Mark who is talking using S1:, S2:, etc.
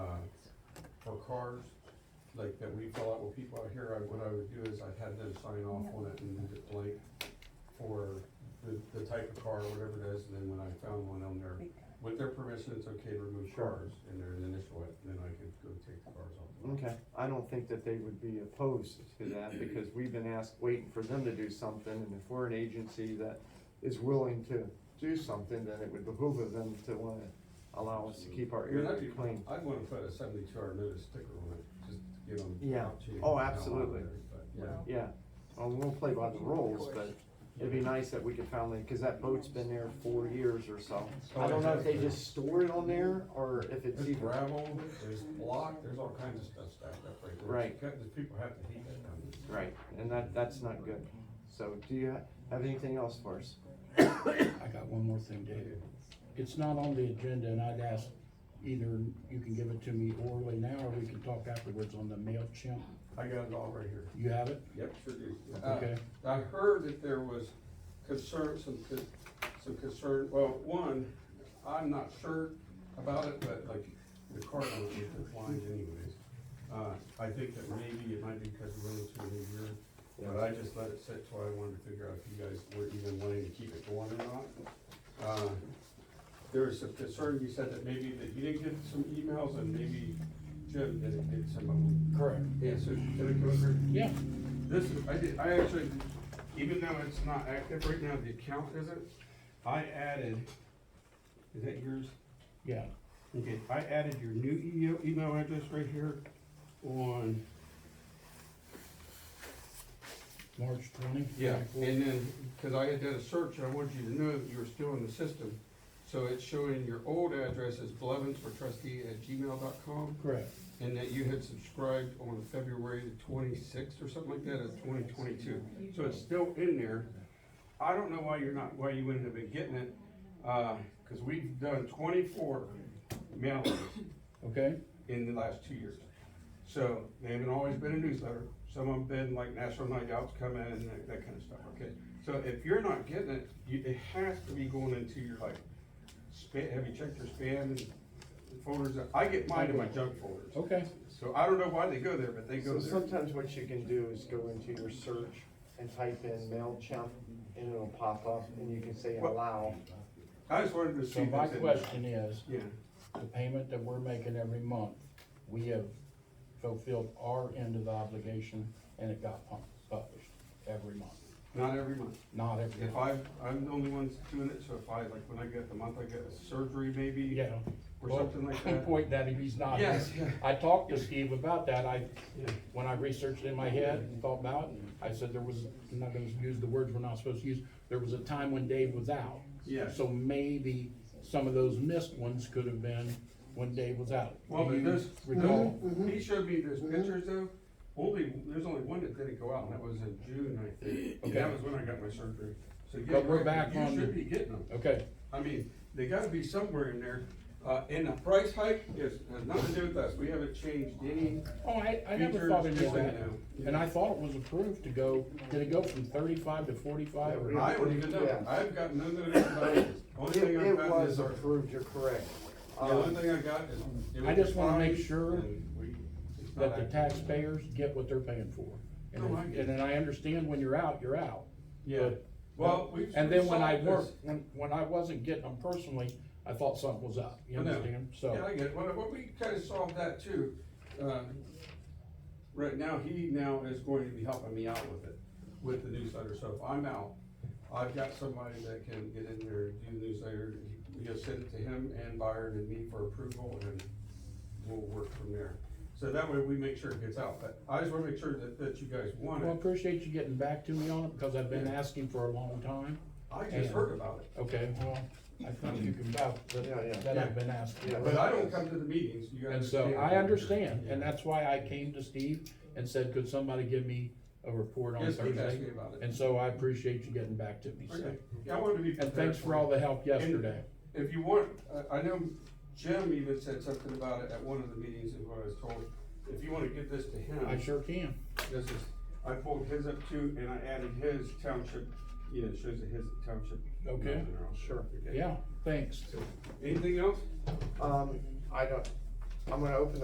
S1: uh, cars, like that we fill out with people out here, I, what I would do is I'd have them sign off on it and leave it blank for the, the type of car, whatever it is, and then when I found one on there, with their permission, it's okay to remove cars and their initial it, then I could go take the cars off. the lot.
S2: Okay, I don't think that they would be opposed to that, because we've been asked, waiting for them to do something, and if we're an agency that is willing to do something, then it would behoove of them to wanna allow us to keep our
S1: I mean,
S2: area
S1: I'd be,
S2: clean.
S1: I'd wanna put a seventy-two hour notice sticker on it, just to give them.
S2: Yeah.
S1: how cheap
S2: Oh,
S1: and how long
S2: absolutely.
S1: it is, but, Yeah.
S3: Well,
S2: Yeah, well, we'll play by the rules, but it'd be nice that we could finally, cause that boat's been there four years or so.
S1: Oh,
S2: I don't know if they just store it on there, or if it's
S1: There's
S2: even,
S1: gravel, there's block, there's all kinds of stuff stacked up right there.
S2: Right.
S1: Because people have to hate that kind of stuff.
S2: right, and that, that's not good. So, do you ha- have anything else for us?
S4: I got one more thing, Dave. It's not on the agenda, and I'd ask either you can give it to me orally now, or we can talk afterwards on the MailChimp.
S1: I got it all right here.
S4: You have it?
S1: Yep, sure do.
S4: Okay.
S1: Uh, I heard that there was concern, some, con- some concern, well, one, I'm not sure about it, but like, the car owners are blind anyways. Uh, I think that maybe it might be because we're into a new year, but I just let it sit till I wanted to figure out if you guys were even wanting to keep it going or not. Uh, There was some concern, you said that maybe that you didn't get some emails and maybe Jim didn't get some of them.
S4: Correct.
S1: Yeah, so did it go through?
S4: Yeah,
S1: This is, I did, I actually, even though it's not active right now, the account isn't, I added, is that yours?
S4: yeah.
S1: Okay, I added your new email, email address right here on,
S4: March twenty?
S1: yeah, and then, cause I had done a search and I wanted you to know that you were still in the system. So it's showing your old address is blevins for trustee at gmail dot com
S4: Correct.
S1: and that you had subscribed on February the twenty-sixth or something like that of twenty twenty-two. So it's still in there. I don't know why you're not, why you wouldn't have been getting it, uh, cause we've done twenty-four mailings
S4: Okay,
S1: in the last two years. So they haven't always been a newsletter. Some have been like National Night Out's come in and that, that kind of stuff, okay? So if you're not getting it, you, it has to be going into your like, spam, have you checked your spam and folders? I get mine in my junk folders.
S4: okay.
S1: So I don't know why they go there, but they go
S2: So
S1: there.
S2: sometimes what you can do is go into your search and type in MailChimp, and it'll pop up, and you can say
S1: Well-
S2: allow.
S1: I just wanted to see.
S4: So my
S1: if it's in-
S4: question is,
S1: Yeah,
S4: the payment that we're making every month, we have fulfilled our end of the obligation, and it got pub- published every month,
S1: not every month.
S4: not every
S1: If
S4: month.
S1: I, I'm the only one's doing it, so if I, like, when I get the month, I get a surgery maybe.
S4: Yeah.
S1: Or
S4: Well,
S1: something like that.
S4: Point that if he's not.
S1: Yes, yeah.
S4: I talked to Steve about that, I,
S1: Yeah.
S4: when I researched in my head and thought about it, I said there was, I'm not gonna use the words we're not supposed to use, there was a time when Dave was out.
S1: Yes.
S4: So maybe some of those missed ones could have been when Dave was out.
S1: Well, Mm-hmm.
S4: Do
S1: but
S4: you
S1: there's,
S4: Recall,
S1: he showed me those pictures though, only, there's only one that didn't go out, and that was in June, I think. And that
S4: Okay.
S1: was when I got my surgery. So yeah,
S4: But we're
S1: right,
S4: back on
S1: You
S4: the-
S1: should be getting them.
S4: okay,
S1: I mean, they gotta be somewhere in there. Uh, and the price hike is, has nothing to do with us. We haven't changed any.
S4: oh, I, I never
S1: Features,
S4: thought of
S1: just so you
S4: that,
S1: know.
S4: and I thought it was approved to go, did it go from thirty-five to forty-five or?
S1: I don't even know.
S2: Yeah.
S1: I've got no notice about it. Only
S2: It,
S1: thing
S2: it
S1: I've gotten
S2: was
S1: is our,
S2: approved, you're correct.
S1: the only
S2: Um,
S1: thing I got is. it
S4: I
S1: was
S4: just wanna make
S1: fine,
S4: sure
S1: and we- it's not
S4: that the
S1: active.
S4: taxpayers get what they're paying for. And
S1: No, Oh, I
S4: then-
S1: get it.
S4: and then I understand when you're out, you're out.
S1: Yeah,
S4: But-
S1: well, we.
S4: And then when I
S1: solved this.
S4: worked, when, when I wasn't getting them personally, I thought something was up, you
S1: I know.
S4: understand?
S1: Yeah,
S4: So,
S1: I get it. Well, what we kind of solved that too. Um, Right now, he now is going to be helping me out with it, with the newsletter. So if I'm out, I've got somebody that can get in there, do the newsletter. We just send it to him and Byron and me for approval and we'll work from there. So that way we make sure it gets out. But I just want to make sure that, that you guys want
S4: well,
S1: it.
S4: appreciate you getting back to me on it, because I've been
S1: Yeah.
S4: asking for a long time.
S1: I just heard about it.
S4: Okay, well, I think you can vouch
S2: Yeah, yeah.
S4: that, that I've been asking.
S2: Yeah.
S1: But I don't come to the meetings. You
S4: And
S1: guys.
S4: so I understand, and that's why I came to Steve and said, could somebody give me a report on
S1: Yes, he asked me
S4: Thursday?
S1: about it.
S4: And so I appreciate you getting back to me, so.
S1: Okay. Yeah, I wanted to be.
S4: And
S1: prepared
S4: thanks for all the help yesterday.
S1: If you want, I, I know Jim even said something about it at one of the meetings, is what I was told. If you wanna give this to
S4: I
S1: him,
S4: sure can.
S1: this is, I pulled his up too, and I added his township, yeah, it shows that his township.
S4: Okay,
S1: sure.
S4: Yeah, thanks.
S1: Anything else?
S2: um, I don't, um, I'm gonna open